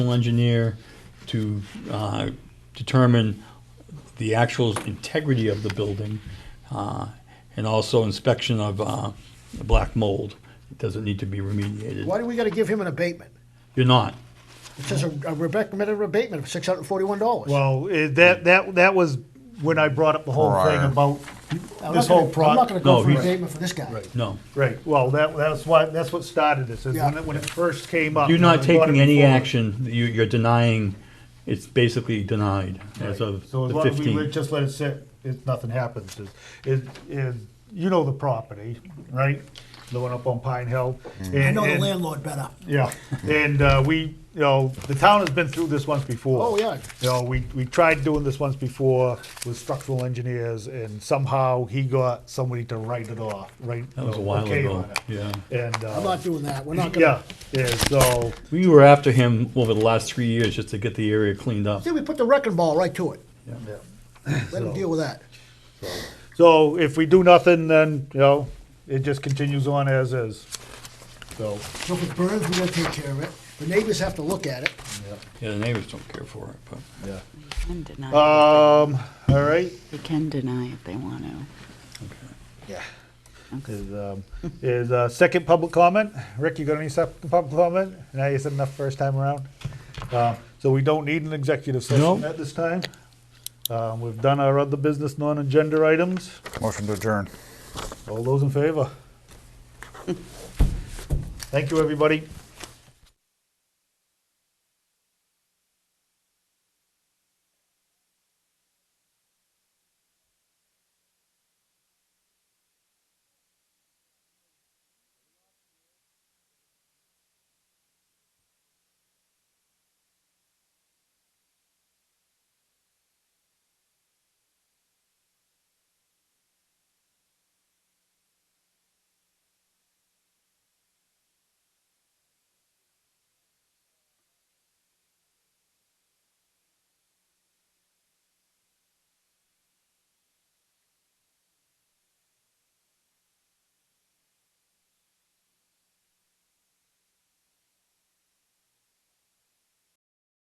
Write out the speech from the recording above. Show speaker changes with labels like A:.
A: engineer to uh, determine the actual integrity of the building, uh, and also inspection of uh, the black mold. Does it need to be remediated?
B: Why do we gotta give him an abatement?
A: You're not.
B: It says a a recommended abatement of six hundred and forty-one dollars.
C: Well, eh, that, that, that was when I brought up the whole thing
D: Prior.
C: about
B: I'm
C: this
B: not gonna-
C: whole
B: I'm not
C: project.
B: gonna go
A: No,
B: for an
A: he's-
B: abatement for this guy.
A: No.
C: Right, well, that, that's why, that's what started this, is when
B: Yeah.
C: it, when it first came up.
A: You're not
C: I brought it
A: taking any
C: before.
A: action. You- You're denying, it's basically denied as of
C: So as
A: the
C: long as we would
A: 15th.
C: just let it sit, if nothing happens, is, is, is, you know the property, right? The one up on Pine Hill.
B: I know the landlord better.
C: Yeah, and uh, we, you know, the town has been through this once before.
B: Oh, yeah.
C: You know, we, we tried doing this once before with structural engineers, and somehow he got somebody to write it off, right?
A: That was a while ago, yeah.
C: And,
B: I'm
C: uh,
B: not doing that. We're not gonna,
C: yeah, yeah, so,
A: We were after him over the last three years just to get the area cleaned up.
B: see, we put the wrecking ball right to it.
C: yeah.
B: Let him
C: So-
B: deal with that.
C: So if we do nothing, then, you know, it just continues on as is, so.
B: So if it burns, we're gonna take care of it. The neighbors have to look at it.
A: Yeah, the neighbors don't care for it, but.
E: Can deny,
C: Um, all right,
E: they can deny if they want to.
C: is, um, is, uh, second public comment. Rick, you got any second public comment? Now you said enough first time around. Uh, so we don't need an executive session
A: No.
C: at this time. Uh, we've done our other business non-agenda items.
D: Motion to adjourn.
C: All those in favor? Thank you, everybody.